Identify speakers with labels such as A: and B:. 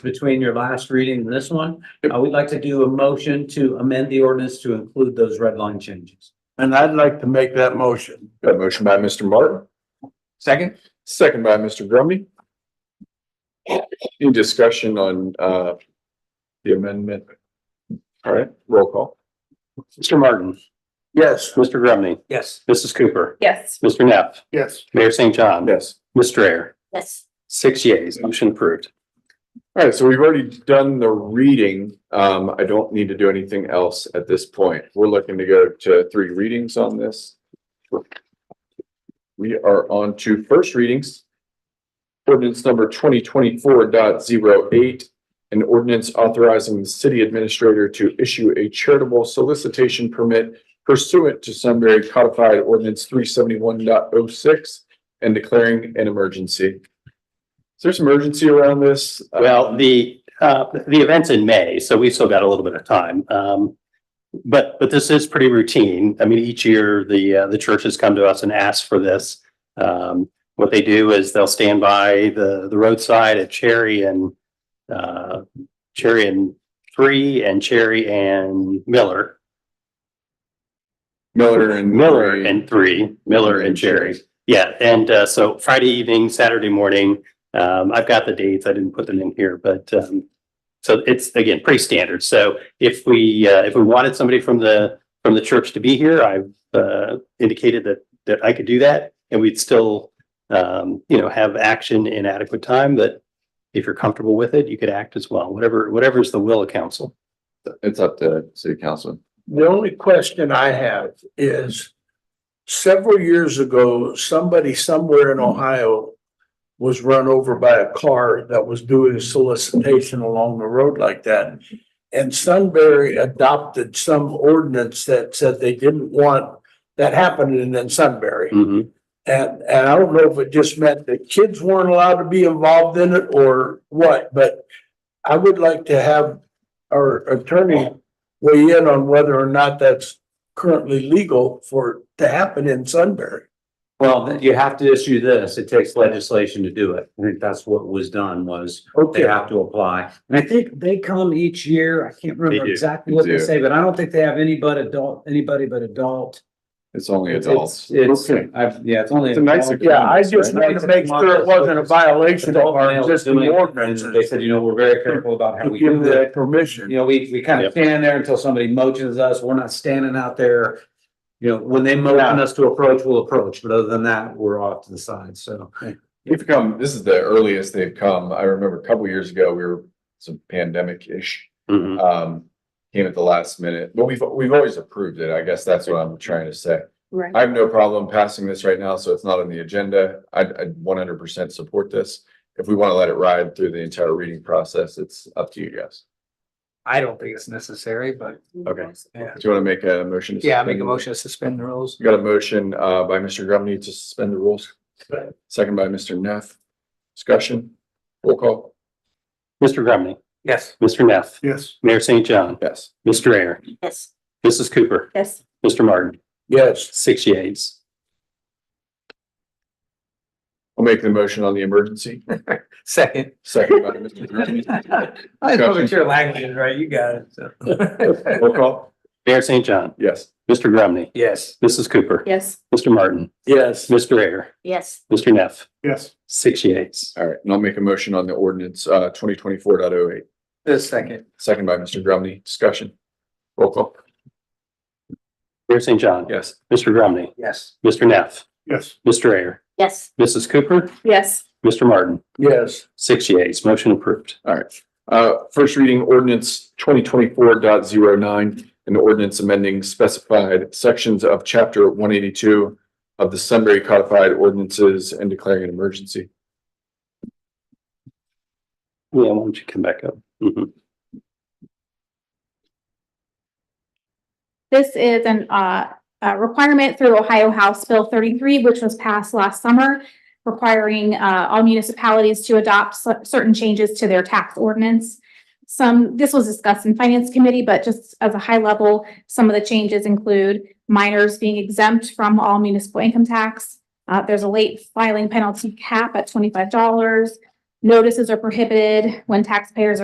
A: between your last reading and this one, I would like to do a motion to amend the ordinance to include those red line changes.
B: And I'd like to make that motion.
C: Got a motion by Mr. Martin,
A: Second?
C: second by Mr. Grumby. Any discussion on uh the amendment? All right, roll call.
D: Mr. Martin.
B: Yes.
D: Mr. Grumney.
A: Yes.
D: Mrs. Cooper.
E: Yes.
D: Mr. Neff.
B: Yes.
D: Mayor St. John.
C: Yes.
D: Ms. Strayer.
E: Yes.
D: Six yeas, motion approved.
C: All right, so we've already done the reading. Um, I don't need to do anything else at this point. We're looking to go to three readings on this. We are on to first readings. Ordinance number twenty twenty-four dot zero eight. An ordinance authorizing the city administrator to issue a charitable solicitation permit pursuant to Sunbury codified ordinance three seventy-one dot oh six and declaring an emergency. Is there some urgency around this?
D: Well, the, uh, the event's in May, so we've still got a little bit of time. Um, but, but this is pretty routine. I mean, each year, the, uh, the churches come to us and ask for this. Um, what they do is they'll stand by the, the roadside at Cherry and, uh, Cherry and Three and Cherry and Miller,
C: Miller and.
D: Miller and Three, Miller and Cherry. Yeah, and uh, so Friday evening, Saturday morning, um, I've got the dates. I didn't put them in here, but um, so it's again pretty standard. So if we uh, if we wanted somebody from the from the church to be here, I've uh, indicated that that I could do that, and we'd still um, you know have action in adequate time. But if you're comfortable with it, you could act as well. Whatever whatever is the will of council.
C: It's up to city council.
B: The only question I have is several years ago, somebody somewhere in Ohio was run over by a car that was doing a solicitation along the road like that. And Sunbury adopted some ordinance that said they didn't want that happening in Sunbury.
D: Mhm.
B: And, and I don't know if it just meant that kids weren't allowed to be involved in it or what, but I would like to have our attorney weigh in on whether or not that's currently legal for, it to happen in Sunbury.
A: Well, then you have to issue this. It takes legislation to do it. I think that's what was done was they
B: Okay,
A: have to apply. And I think they come each year. I can't remember
D: do.
A: exactly what
C: They
A: they
C: do.
A: say, but I don't think they have any but adult, anybody but adult.
C: It's only adults.
A: It's,
B: Okay.
A: it's- I've, yeah, it's only.
C: It's a nice
A: adult.
B: yeah, I just wanted to make sure it wasn't a violation of our
A: Adult males
B: existing
A: doing it,
B: ordinances.
A: and They said, you know, we're very careful about how
B: To
A: we
B: give
A: do it.
B: that permission.
A: You know, we, we kind of
D: Yep.
A: stand there until somebody motions us. We're not standing out there. You know, when they motion us to approach, we'll approach, but other than that, we're off to the side, so.
C: We've come, this is the earliest they've come. I remember a couple years ago, we were some pandemic-ish.
D: Mhm.
C: Um, came at the last minute, but we've, we've always approved it. I guess that's what I'm trying to say.
E: Right.
C: I have no problem passing this right now, so it's not on the agenda. I'd, I'd one hundred percent support this. If we want to let it ride through the entire reading process, it's up to you guys.
F: I don't think it's necessary, but
C: Okay.
F: Yeah.
C: Do you want to make a motion? to
F: yeah, I make a
C: suspend?
F: motion to suspend the rules.
C: Got a motion uh by Mr. Grumney to suspend the rules.
B: Second.
C: Second by Mr. Neff. Discussion, roll call,
D: Mr. Grumney,
F: Yes.
D: Mr. Neff,
B: Yes.
D: Mayor St. John,
C: yes.
D: Ms. Strayer,
E: Yes.
D: Mrs. Cooper,
E: Yes.
D: Mr. Martin,
B: Yes,
D: six yeas.
C: I'll make the motion on the emergency.
F: Second.
C: Second by Mr. Grumney.
F: I know what your language is, right? You got it. so.
C: Roll call,
D: Mayor St. John,
C: yes.
D: Mr. Grumney,
F: Yes.
D: Mrs. Cooper,
E: Yes.
D: Mr. Martin,
B: yes.
D: Mr. Ayer,
E: Yes.
D: Mr. Neff,
B: Yes.
D: six yeas.
C: All right, and I'll make a motion on the ordinance uh twenty twenty four point oh eight.
F: The second.
C: Second by Mr. Grumney, discussion. Roll call,
D: Mayor St. John,
C: yes.
D: Mr. Grumney,
F: Yes.
D: Mr. Neff,
B: Yes.
D: Mr. Ayer,
E: Yes.
D: Mrs. Cooper,
E: Yes.
D: Mr. Martin,
B: Yes,
D: six yeas, motion approved.
C: All right, uh, first reading ordinance twenty twenty-four dot zero nine, an ordinance amending specified sections of chapter one eighty-two of the Sunbury Codified Ordinances and declaring an emergency.
D: Yeah, why don't you come back up? Mhm.
G: This is an, uh, a requirement through Ohio House Bill thirty-three, which was passed last summer, requiring, uh, all municipalities to adopt cer- certain changes to their tax ordinance. Some, this was discussed in Finance Committee, but just as a high level, some of the changes include minors being exempt from all municipal income tax. Uh, there's a late filing penalty cap at twenty-five dollars. Notices are prohibited when taxpayers are